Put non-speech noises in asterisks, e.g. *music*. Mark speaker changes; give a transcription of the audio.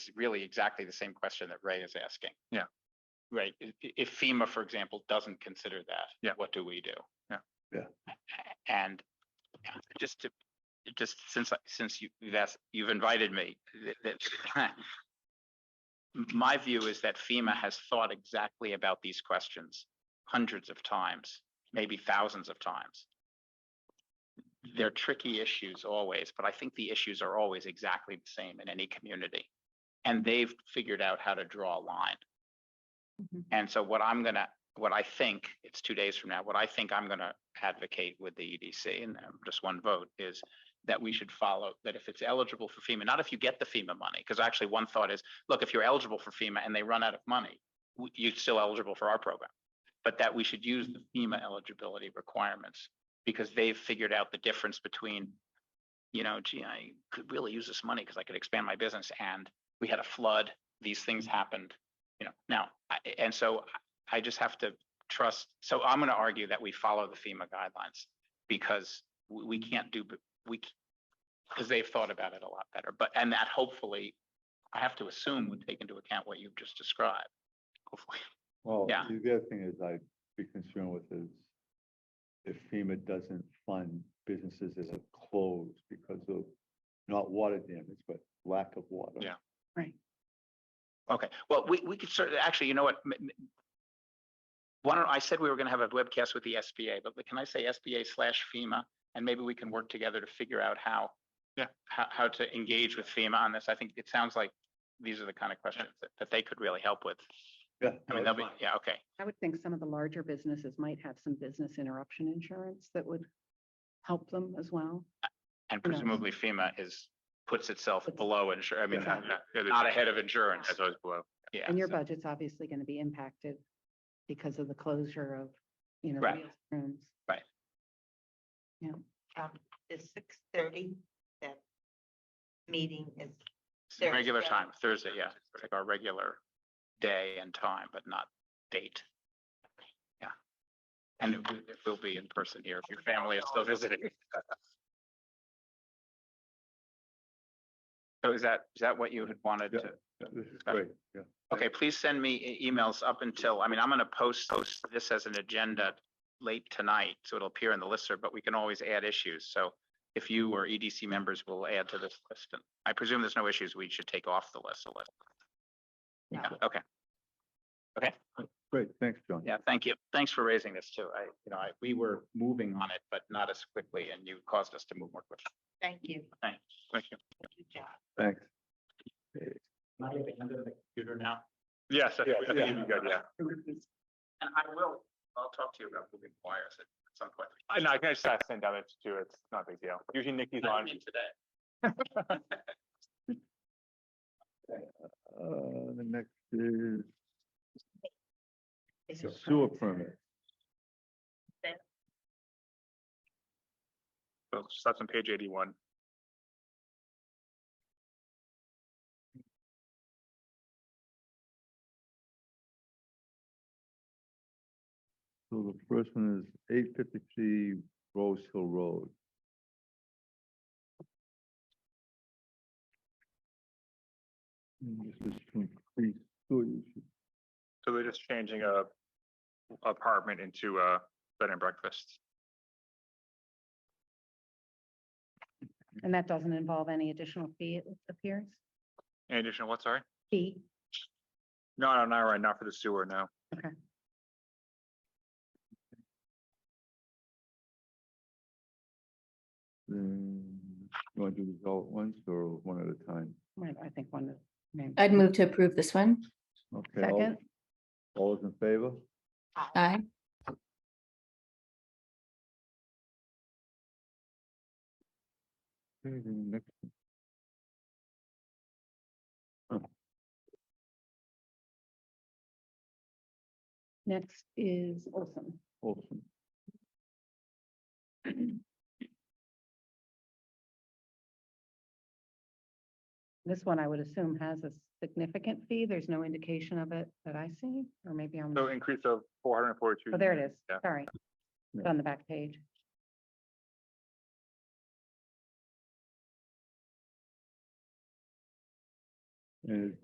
Speaker 1: it's really exactly the same question that Ray is asking.
Speaker 2: Yeah.
Speaker 1: Right, i- i- if FEMA, for example, doesn't consider that.
Speaker 2: Yeah.
Speaker 1: What do we do?
Speaker 2: Yeah.
Speaker 3: Yeah.
Speaker 1: And just to, just since, I- since you, you've asked, you've invited me, th- that. *laughs* My view is that FEMA has thought exactly about these questions hundreds of times, maybe thousands of times. They're tricky issues always, but I think the issues are always exactly the same in any community. And they've figured out how to draw a line.
Speaker 4: Mhm.
Speaker 1: And so what I'm gonna, what I think, it's two days from now, what I think I'm gonna advocate with the EDC and um, just one vote is that we should follow, that if it's eligible for FEMA, not if you get the FEMA money, because actually one thought is, look, if you're eligible for FEMA and they run out of money, w- you're still eligible for our program. But that we should use the FEMA eligibility requirements because they've figured out the difference between, you know, gee, I could really use this money because I could expand my business and we had a flood, these things happened, you know, now, I, and so I I just have to trust, so I'm gonna argue that we follow the FEMA guidelines because we, we can't do, b- we, because they've thought about it a lot better, but, and that hopefully, I have to assume would take into account what you've just described. Hopefully,
Speaker 3: Well,
Speaker 1: Yeah.
Speaker 3: the other thing is I'd be concerned with is if FEMA doesn't fund businesses that are closed because of not water damage, but lack of water.
Speaker 2: Yeah.
Speaker 4: Right.
Speaker 1: Okay, well, we, we could certainly, actually, you know what? m- m- Why don't, I said we were gonna have a webcast with the SBA, but can I say SBA slash FEMA? And maybe we can work together to figure out how.
Speaker 2: Yeah.
Speaker 1: How, how to engage with FEMA on this. I think it sounds like these are the kind of questions that, that they could really help with.
Speaker 3: *laughs* Yeah.
Speaker 1: I mean, they'll be, yeah, okay.
Speaker 4: I would think some of the larger businesses might have some business interruption insurance that would help them as well.
Speaker 1: And
Speaker 4: Who knows?
Speaker 1: presumably FEMA is, puts itself
Speaker 4: Puts-
Speaker 1: below insurance, I mean,
Speaker 3: Yeah.
Speaker 1: not-
Speaker 2: Yeah, it is.
Speaker 1: not ahead of insurance,
Speaker 2: That's always below.
Speaker 1: yeah.
Speaker 4: And your
Speaker 1: so-
Speaker 4: budget's obviously going to be impacted because of the closure of, you know,
Speaker 1: Right.
Speaker 4: meals rooms.
Speaker 1: Right.
Speaker 4: Yeah.
Speaker 5: um, the six thirty, that meeting is,
Speaker 1: It's the Regular
Speaker 5: Thursday.
Speaker 1: time, Thursday, yeah, it's like our regular day and time, but not date. Yeah. And it will- it will be in person here if your family is still visiting. *laughs* So is that, is that what you had wanted to?
Speaker 3: This is great, yeah.
Speaker 1: Okay, please send me e- emails up until, I mean, I'm gonna post post this as an agenda late tonight, so it'll appear in the listserv, but we can always add issues, so if you or EDC members will add to this list, and I presume there's no issues we should take off the list, the list. Yeah, okay,
Speaker 3: Great, thanks, John.
Speaker 1: yeah, thank you. Thanks for raising this too. I, you know, I, we were moving on it, but not as quickly, and you caused us to move more quickly.
Speaker 5: thank you,
Speaker 1: Thanks, thank you.
Speaker 5: good job.
Speaker 3: Thanks.
Speaker 1: Am I at the end of the computer now?
Speaker 2: Yes, I think
Speaker 3: Yeah,
Speaker 2: I think
Speaker 3: yeah.
Speaker 2: you'd be good, yeah.
Speaker 1: And I will, I'll talk to you about moving wires at some point.
Speaker 2: I know, I can just ask send damage too. It's not a big deal. Usually Nikki's
Speaker 1: I
Speaker 2: on.
Speaker 1: mean, Today.
Speaker 3: Uh, the next is
Speaker 5: It's
Speaker 3: the
Speaker 5: fine.
Speaker 3: sewer permit.
Speaker 2: So That's on page eighty-one.
Speaker 3: So the first one is eight fifty-three Rose Hill Road. And this is to increase sewer usage.
Speaker 2: So they're just changing a apartment into a bed and breakfast.
Speaker 4: And that doesn't involve any additional fee, it appears?
Speaker 2: In addition, what, sorry?
Speaker 4: Fee?
Speaker 2: No, no, not right, not for the sewer, no.
Speaker 3: Then you want to do these all at once or one at a time?
Speaker 4: Right, I think one of. maybe-
Speaker 6: I'd move to approve this one.
Speaker 3: Okay. all-
Speaker 4: Second.
Speaker 3: All those in favor?
Speaker 6: Aye.
Speaker 3: Okay, then the next one.
Speaker 4: Next is Olson.
Speaker 3: Olson.
Speaker 4: This one I would assume has a significant fee. There's no indication of it that I see, or maybe I'm.
Speaker 2: So increase of four hundred and forty-two.
Speaker 4: Oh, there it is.
Speaker 2: Yeah.
Speaker 4: Sorry. It's
Speaker 3: Yeah.
Speaker 4: on the back page.
Speaker 3: And